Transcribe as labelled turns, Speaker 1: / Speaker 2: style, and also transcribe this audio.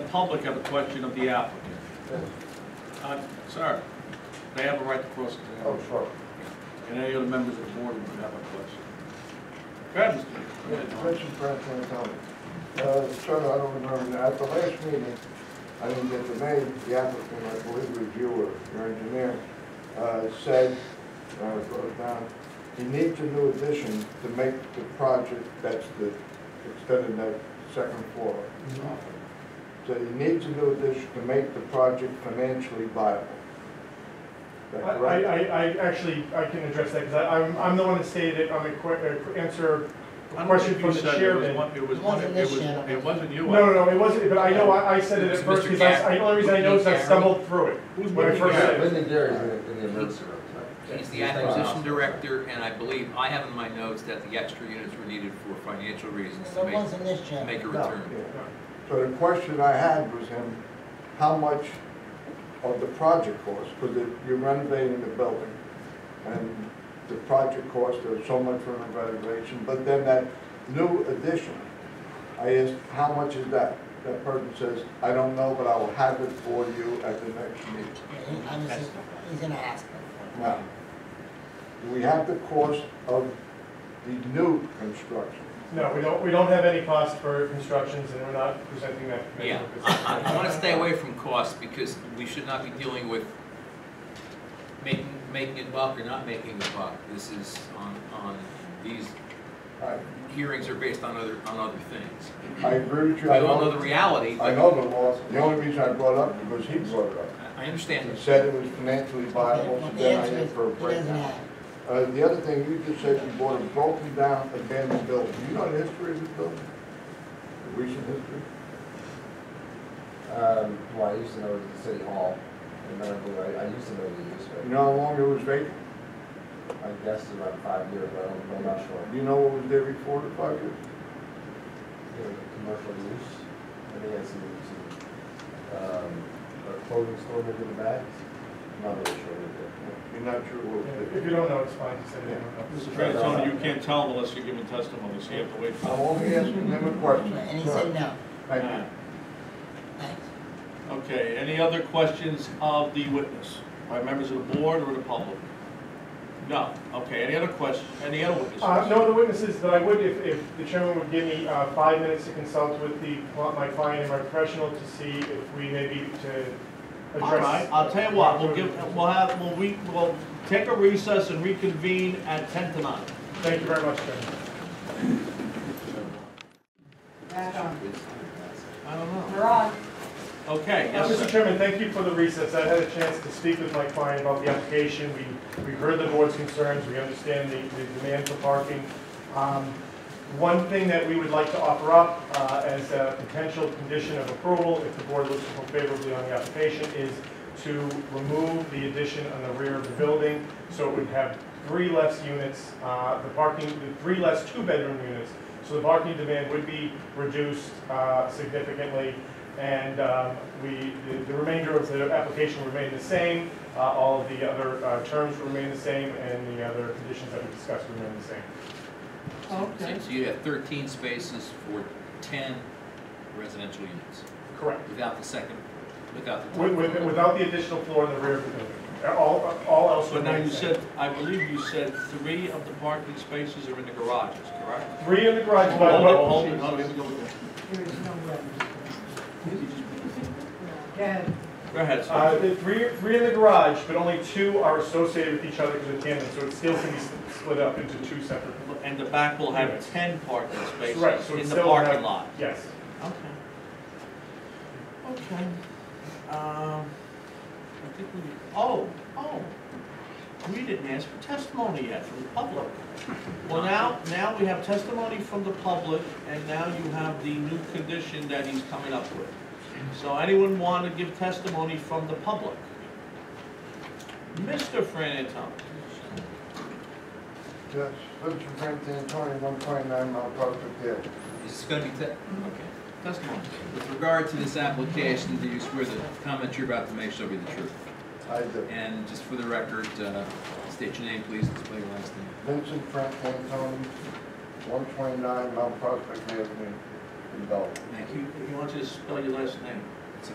Speaker 1: public have a question of the applicant. Uh, Sir, they have a right to cross-examine,
Speaker 2: Oh, sure.
Speaker 1: and any other members of the board would have a question. Go ahead,
Speaker 2: Yeah,
Speaker 1: Mr. Chairman.
Speaker 2: Question for Antony. Uh, sir, I don't remember, at the last meeting, I didn't get the name, the applicant, I believe it was you or your engineer, uh, said, uh, wrote it down, you need a new addition to make the project, that's the, extended that second floor.
Speaker 3: Mm-hmm.
Speaker 2: So you need a new addition to make the project financially viable. Is that
Speaker 4: I,
Speaker 2: correct?
Speaker 4: I, I actually, I can address that, because I'm, I'm the one that stated it, I'm a que, uh, answer
Speaker 1: I
Speaker 4: a
Speaker 1: don't
Speaker 4: question
Speaker 1: think
Speaker 4: from
Speaker 1: you
Speaker 4: the
Speaker 1: said it was
Speaker 4: chairman.
Speaker 1: one, it was
Speaker 5: It
Speaker 1: one,
Speaker 5: wasn't
Speaker 1: it
Speaker 5: this
Speaker 1: was,
Speaker 5: gentleman.
Speaker 1: it wasn't you.
Speaker 4: No, no, no, it wasn't, but I know, I, I said it
Speaker 6: It's
Speaker 4: at first,
Speaker 6: Mr.
Speaker 4: because I, I- the only reason I know is I
Speaker 6: Gaffney.
Speaker 4: stumbled through it.
Speaker 1: Who's
Speaker 4: When I
Speaker 1: Mr.
Speaker 4: first said it.
Speaker 3: Linda Derry's in the- in the emergency room tonight.
Speaker 6: He's the acquisition director, and I believe, I have in my notes that the extra units were needed for financial reasons to
Speaker 5: It
Speaker 6: make,
Speaker 5: wasn't this
Speaker 6: to
Speaker 5: gentleman.
Speaker 6: make a
Speaker 2: No,
Speaker 6: return.
Speaker 2: yeah. So the question I had was him, how much of the project cost, because you're renovating the building, and the project cost is so much for the renovation, but then that new addition, I asked, how much is that? That person says, I don't know, but I will have it for you at the next meeting.
Speaker 5: He- I was, he's gonna ask him.
Speaker 2: Now, do we have the cost of the new construction?
Speaker 4: No, we don't, we don't have any cost for constructions, and we're not presenting that. to the
Speaker 6: Yeah,
Speaker 4: business.
Speaker 6: I, I want to stay away from costs, because we should not be dealing with making, making a buck or not making a buck. This is on, on, these
Speaker 2: All right,
Speaker 6: hearings are based on other, on other things.
Speaker 2: I agree with
Speaker 6: We
Speaker 2: you. I
Speaker 6: all know the reality,
Speaker 2: I
Speaker 6: but
Speaker 2: know the law, the only reason I brought it up, because he brought it up.
Speaker 6: I I understand
Speaker 2: He
Speaker 6: this.
Speaker 2: said it was financially viable, so
Speaker 5: But the
Speaker 2: then I
Speaker 5: answer
Speaker 2: asked
Speaker 5: is,
Speaker 2: for a
Speaker 5: he doesn't
Speaker 2: breakdown.
Speaker 5: have it.
Speaker 2: Uh, the other thing, you just said you bought a broken down abandoned building, you know the history of this building? The recent history?
Speaker 3: Um, well, I used to know it was the city hall, and then I blew- I, I used to know the use
Speaker 2: You
Speaker 3: of it.
Speaker 2: know how long it was vacant?
Speaker 3: I guess it's about five years, but I'm, I'm not sure.
Speaker 2: Do you know what was there before the five years?
Speaker 3: You know, commercial use, I think it's some, some, um, a clothing store maybe in the back. I'm not really sure what it
Speaker 2: You're not sure what
Speaker 4: Yeah,
Speaker 2: was
Speaker 4: If you
Speaker 2: there?
Speaker 4: don't know, it's fine, just say you don't know.
Speaker 1: Mr. Frantantoni, you can't tell them unless you're giving testimony, so you have to wait for
Speaker 2: I'm
Speaker 1: them.
Speaker 2: only asking them a question.
Speaker 5: And he said no,
Speaker 2: Thank you.
Speaker 5: thanks.
Speaker 1: Okay, any other questions of the witness, by members of the board or the public? No, okay, any other question, any other witnesses?
Speaker 4: Uh, No other witnesses, but I would, if, if the chairman would give me uh, five minutes to consult with the, my client and my professional to see if we maybe to
Speaker 1: All right,
Speaker 4: address.
Speaker 1: I'll tell you what, we'll give, we'll have, we'll, we, we'll take a recess and reconvene at ten to nine.
Speaker 4: Thank you very much, chairman.
Speaker 7: Back on.
Speaker 1: I don't know.
Speaker 7: We're on.
Speaker 1: Okay,
Speaker 4: Uh,
Speaker 1: yes,
Speaker 4: Mr.
Speaker 1: sir.
Speaker 4: Chairman, thank you for the recess. I had a chance to speak with my client about the application. We, we heard the board's concerns, we understand the, the demand for parking. Um, One thing that we would like to offer up uh, as a potential condition of approval, if the board looks favorably on the application, is to remove the addition on the rear of the building, so it would have three less units, uh, the parking, the three less two-bedroom units. So the parking demand would be reduced uh, significantly, and um, we, the- the remainder of the application remained the same, Uh, all of the other uh, terms remain the same, and the other conditions that we discussed remain the same.
Speaker 6: So so you have thirteen spaces for ten residential units,
Speaker 4: Correct.
Speaker 6: without the second, without the. top
Speaker 4: With- with-
Speaker 6: floor.
Speaker 4: Without the additional floor in the rear of the building. Uh, All, all else
Speaker 1: So now you
Speaker 4: remains the same.
Speaker 1: said, I believe you said three of the parking spaces are in the garages, correct?
Speaker 4: Three in the garage,
Speaker 1: Hold
Speaker 4: but-
Speaker 1: on,
Speaker 4: but-
Speaker 1: hold on, hold on, here we go.
Speaker 7: There is no way. Ted,
Speaker 1: Go ahead,
Speaker 4: Uh,
Speaker 1: sir.
Speaker 4: the three, three in the garage, but only two are associated with each other because of tandem, so it still can be s- split up into two separate.
Speaker 1: And the back will have ten parking spaces
Speaker 4: Uh, Right, so
Speaker 1: in
Speaker 4: it's
Speaker 1: the
Speaker 4: still
Speaker 1: parking
Speaker 4: have-
Speaker 1: lot.
Speaker 4: Yes.
Speaker 1: Okay. Okay. Um, I think we, oh, oh, we didn't ask for testimony yet from the public. Well, now, now we have testimony from the public, and now you have the new condition that he's coming up with. So anyone want to give testimony from the public? Mr. Fran Antoni,
Speaker 2: Yes, Mr. Frantantoni, one point nine Mount Prospect Hill.
Speaker 6: Is this gonna be, te- okay,
Speaker 1: testimony.
Speaker 6: with regard to this application, do you swear the comment you're about to make shall be the truth?
Speaker 2: I do.
Speaker 6: And just for the record, uh, state your name, please, and spell your last name.
Speaker 2: Vincent Frank Antoni, one twenty-nine Mount Prospect Avenue in Belleville.
Speaker 1: Thank you. He wants you to spell your last name.